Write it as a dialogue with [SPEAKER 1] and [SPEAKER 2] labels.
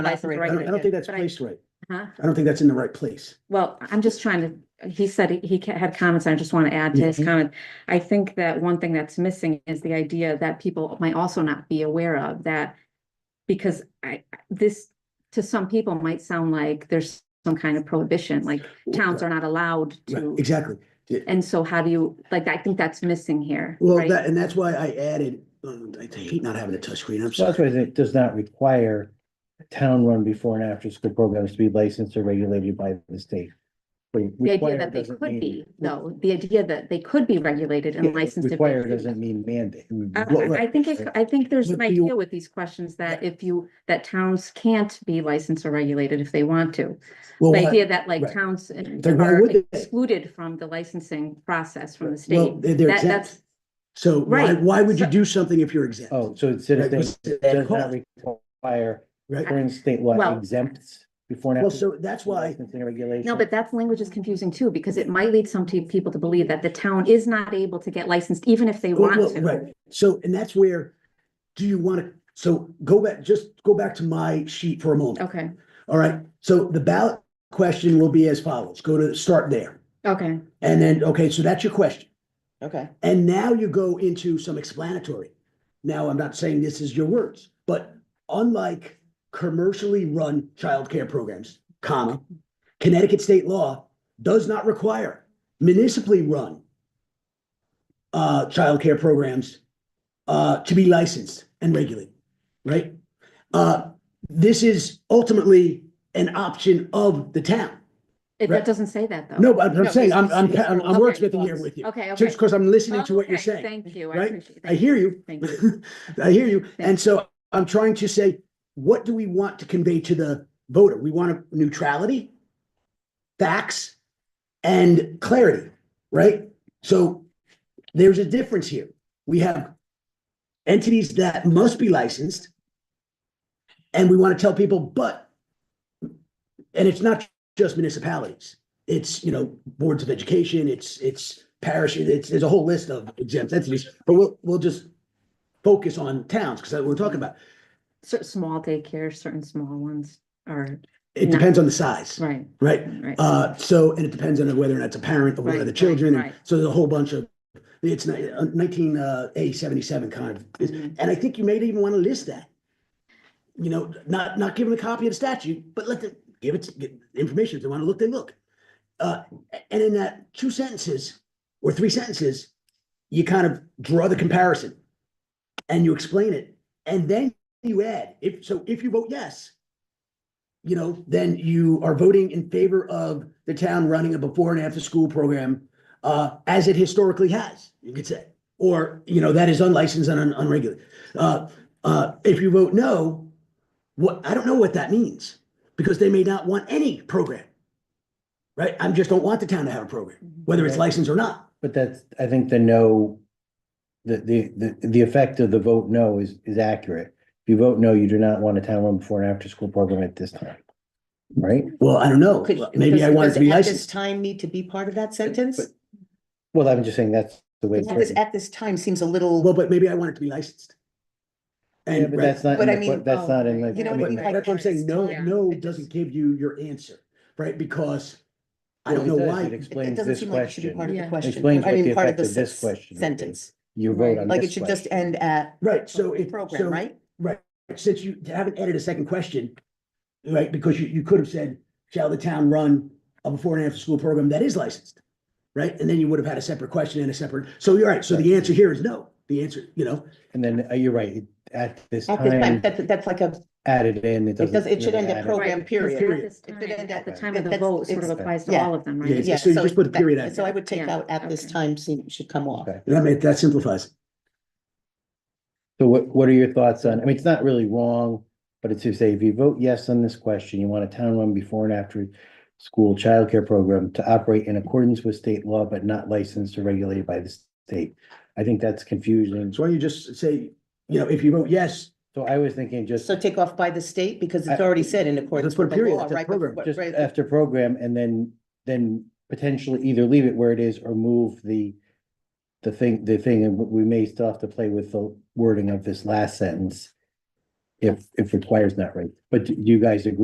[SPEAKER 1] not the
[SPEAKER 2] License
[SPEAKER 1] right- I don't, I don't
[SPEAKER 2] right.
[SPEAKER 1] think that's
[SPEAKER 2] But I- Uh-huh.
[SPEAKER 1] placed right.
[SPEAKER 2] Huh?
[SPEAKER 1] I don't think that's in the right place.
[SPEAKER 2] Well, I'm just trying to, he said he- he ca- had comments, I just want to add to his
[SPEAKER 1] Mhm.
[SPEAKER 2] comment. I think that one thing that's missing is the idea that people might also not be aware of that. Because I, this, to some people might sound like there's some kind of prohibition, like towns are not allowed
[SPEAKER 1] Right,
[SPEAKER 2] to.
[SPEAKER 1] Exactly.
[SPEAKER 2] And so how do you, like, I think that's missing here,
[SPEAKER 1] Well,
[SPEAKER 2] right?
[SPEAKER 1] that, and that's why I added, um, I hate not having a touchscreen, I'm
[SPEAKER 3] So
[SPEAKER 1] sorry.
[SPEAKER 3] that's why it does not require town-run before and after-school programs to be licensed or regulated by the state.
[SPEAKER 2] The idea that they could be, though, the idea that they could be regulated and licensed. if they
[SPEAKER 3] Require
[SPEAKER 2] choose.
[SPEAKER 3] doesn't mean mandate.
[SPEAKER 2] Uh,
[SPEAKER 3] Well,
[SPEAKER 2] I I think, it- I think there's an
[SPEAKER 1] What do you-
[SPEAKER 2] idea with these questions that if you, that towns can't be licensed or regulated if they want to.
[SPEAKER 1] Well,
[SPEAKER 2] The
[SPEAKER 1] why-
[SPEAKER 2] idea that like
[SPEAKER 1] Oh, right.
[SPEAKER 2] towns uh,
[SPEAKER 1] Then why
[SPEAKER 2] are
[SPEAKER 1] would they?
[SPEAKER 2] excluded from the licensing process from the
[SPEAKER 1] well,
[SPEAKER 2] state.
[SPEAKER 1] they're they're
[SPEAKER 2] That,
[SPEAKER 1] exempt.
[SPEAKER 2] that's,
[SPEAKER 1] So why,
[SPEAKER 2] Right.
[SPEAKER 1] why would you
[SPEAKER 2] So-
[SPEAKER 1] do something if you're exempt?
[SPEAKER 3] Oh, so instead
[SPEAKER 1] Right,
[SPEAKER 3] of things,
[SPEAKER 1] was it
[SPEAKER 3] does not
[SPEAKER 1] called?
[SPEAKER 3] require
[SPEAKER 1] Right?
[SPEAKER 3] current state law
[SPEAKER 2] Well-
[SPEAKER 3] exempts before and
[SPEAKER 1] Well,
[SPEAKER 3] after.
[SPEAKER 1] so that's why,
[SPEAKER 3] Licensing regulation.
[SPEAKER 2] no, but that language is confusing too, because it might lead some te- people to believe that the town is not able to get licensed even if they
[SPEAKER 1] well,
[SPEAKER 2] want
[SPEAKER 1] well,
[SPEAKER 2] to.
[SPEAKER 1] right, so, and that's where, do you want to, so go back, just go back to my sheet for a moment.
[SPEAKER 2] Okay,
[SPEAKER 1] All right, so the ballot question will be as follows. Go to, start there.
[SPEAKER 2] okay,
[SPEAKER 1] And then, okay, so that's your question.
[SPEAKER 4] Okay,
[SPEAKER 1] And now you go into some explanatory. Now, I'm not saying this is your words, but unlike commercially run childcare programs, comma, Connecticut state law does not require municipally run uh, childcare programs uh, to be licensed and regulated, right? Uh, this is ultimately an option of the town.
[SPEAKER 2] It-
[SPEAKER 1] Right.
[SPEAKER 2] that doesn't say that though.
[SPEAKER 1] No, but I'm saying, I'm, I'm,
[SPEAKER 4] it's-
[SPEAKER 1] I'm I'm
[SPEAKER 2] Okay.
[SPEAKER 1] wordsmithing here with you.
[SPEAKER 2] Okay, okay.
[SPEAKER 1] Just because I'm listening to what you're
[SPEAKER 2] Okay,
[SPEAKER 1] saying.
[SPEAKER 2] Thank you, I
[SPEAKER 1] right?
[SPEAKER 2] appreciate.
[SPEAKER 1] I
[SPEAKER 2] thank
[SPEAKER 1] hear you.
[SPEAKER 2] Thank you.
[SPEAKER 1] I hear you. And
[SPEAKER 2] Thank
[SPEAKER 1] so I'm trying to say, what do we want to convey to the voter? We want a neutrality, facts, and clarity, right? So there's a difference here. We have entities that must be licensed. And we want to tell people, but, and it's not just municipalities. It's, you know, boards of education, it's, it's parish, it's, there's a whole list of exempt entities, but we'll, we'll just focus on towns, because that's what we're talking about.
[SPEAKER 2] Cer- small daycare, certain small ones are,
[SPEAKER 1] It
[SPEAKER 2] No.
[SPEAKER 1] depends on the size,
[SPEAKER 2] right,
[SPEAKER 1] right?
[SPEAKER 2] right.
[SPEAKER 1] Uh, so, and it depends on whether or not it's a parent or one
[SPEAKER 2] Right,
[SPEAKER 1] of the
[SPEAKER 2] right,
[SPEAKER 1] children. and
[SPEAKER 2] right.
[SPEAKER 1] So there's a whole bunch of, it's ni- uh, nineteen, uh, A seventy-seven kind of, is-
[SPEAKER 2] Mhm.
[SPEAKER 1] and I think you may even want to list that. You know, not, not give them a copy of the statute, but let them, give it, get information. If they want to look, they look. Uh, a- and in that two sentences or three sentences, you kind of draw the comparison and you explain it. And then you add, if, so if you vote yes, you know, then you are voting in favor of the town running a before and after school program uh, as it historically has, you could say. Or, you know, that is unlicensed and un- unregulated. Uh, uh, if you vote no, what, I don't know what that means because they may not want any program. Right? I just don't want the town to have a program, whether it's
[SPEAKER 3] Right.
[SPEAKER 1] licensed or not.
[SPEAKER 3] But that's, I think the no, the, the, the, the effect of the vote no is, is accurate. If you vote no, you do not want a town run before and after school program at this time. Right?
[SPEAKER 1] Well, I don't know.
[SPEAKER 4] could,
[SPEAKER 1] Maybe I
[SPEAKER 4] does-
[SPEAKER 1] want it
[SPEAKER 4] does
[SPEAKER 1] to be
[SPEAKER 4] at this
[SPEAKER 1] licensed.
[SPEAKER 4] Time need to be part of that sentence?
[SPEAKER 3] but- Well, I'm just saying that's the way. it's
[SPEAKER 4] At this,
[SPEAKER 3] written.
[SPEAKER 4] at this time seems a little,
[SPEAKER 1] Well, but maybe I want it to be licensed.
[SPEAKER 3] Yeah,
[SPEAKER 1] And
[SPEAKER 3] but
[SPEAKER 1] right,
[SPEAKER 3] that's not,
[SPEAKER 4] But
[SPEAKER 3] in
[SPEAKER 4] I
[SPEAKER 3] the que-
[SPEAKER 4] mean,
[SPEAKER 3] that's
[SPEAKER 2] oh,
[SPEAKER 3] not in the.
[SPEAKER 4] you know what I mean?
[SPEAKER 1] But
[SPEAKER 4] Like,
[SPEAKER 1] that's what I'm saying, no,
[SPEAKER 2] yeah.
[SPEAKER 1] no doesn't give you your answer, right? Because I don't
[SPEAKER 3] Well,
[SPEAKER 1] know
[SPEAKER 3] it does. It
[SPEAKER 1] why,
[SPEAKER 4] it- it
[SPEAKER 3] Explains
[SPEAKER 4] doesn't
[SPEAKER 3] this
[SPEAKER 4] seem like it should be part of
[SPEAKER 3] question.
[SPEAKER 2] Yeah.
[SPEAKER 4] the question.
[SPEAKER 3] Explains
[SPEAKER 4] I
[SPEAKER 3] what
[SPEAKER 4] mean,
[SPEAKER 3] the
[SPEAKER 4] part of
[SPEAKER 3] effect of
[SPEAKER 4] sen-
[SPEAKER 3] this question would be.
[SPEAKER 4] Sentence,
[SPEAKER 3] You vote
[SPEAKER 2] Right.
[SPEAKER 3] on
[SPEAKER 4] like it
[SPEAKER 3] this
[SPEAKER 4] should just
[SPEAKER 3] question.
[SPEAKER 4] end at
[SPEAKER 1] right, so it,
[SPEAKER 4] program,
[SPEAKER 1] so,
[SPEAKER 4] right?
[SPEAKER 1] since you haven't added a second question, right, because you, you could have said, shall the town run a before and after school program that is licensed? Right, and then you would have had a separate question and a separate, so you're right, so the answer here is no, the answer, you know,
[SPEAKER 3] And then, uh, you're right, it- at this
[SPEAKER 4] At this time,
[SPEAKER 3] time,
[SPEAKER 4] that, that's like a,
[SPEAKER 3] added in, it doesn't.
[SPEAKER 4] does- it should
[SPEAKER 3] really
[SPEAKER 4] end at
[SPEAKER 3] add
[SPEAKER 4] program,
[SPEAKER 2] Right, because
[SPEAKER 4] period.
[SPEAKER 2] At this
[SPEAKER 4] It
[SPEAKER 2] time-
[SPEAKER 4] could end
[SPEAKER 2] at
[SPEAKER 4] at
[SPEAKER 2] the
[SPEAKER 4] that.
[SPEAKER 2] time of the
[SPEAKER 4] That's-
[SPEAKER 2] vote sort of
[SPEAKER 4] it's-
[SPEAKER 2] applies to
[SPEAKER 4] yeah.
[SPEAKER 2] all of them,
[SPEAKER 1] Yeah,
[SPEAKER 2] right?
[SPEAKER 1] yeah.
[SPEAKER 4] yeah.
[SPEAKER 1] so you just put a
[SPEAKER 4] that-
[SPEAKER 1] period after
[SPEAKER 4] So I
[SPEAKER 1] it.
[SPEAKER 4] would take
[SPEAKER 2] Yeah,
[SPEAKER 4] out at this
[SPEAKER 2] okay.
[SPEAKER 4] time seem, should come off.
[SPEAKER 3] Okay.
[SPEAKER 1] I mean, that simplifies. it.
[SPEAKER 3] So what, what are your thoughts on, I mean, it's not really wrong, but it's to say, if you vote yes on this question, you want a town run before and after school childcare program to operate in accordance with state law, but not licensed or regulated by the state. I think that's confusing.
[SPEAKER 1] So why don't you just say, you know, if you vote yes,
[SPEAKER 3] So I was thinking just,
[SPEAKER 4] So take off by the state because it's
[SPEAKER 3] I-
[SPEAKER 4] already said in accordance
[SPEAKER 1] Let's put a
[SPEAKER 4] with the
[SPEAKER 1] period
[SPEAKER 4] law,
[SPEAKER 1] after
[SPEAKER 4] right?
[SPEAKER 1] program,
[SPEAKER 4] But-
[SPEAKER 3] just
[SPEAKER 4] right,
[SPEAKER 3] after program and then, then potentially either leave it where it is or move the the thing, the thing, and we may still have to play with the wording of this last sentence if, if requires not right. But do you guys agree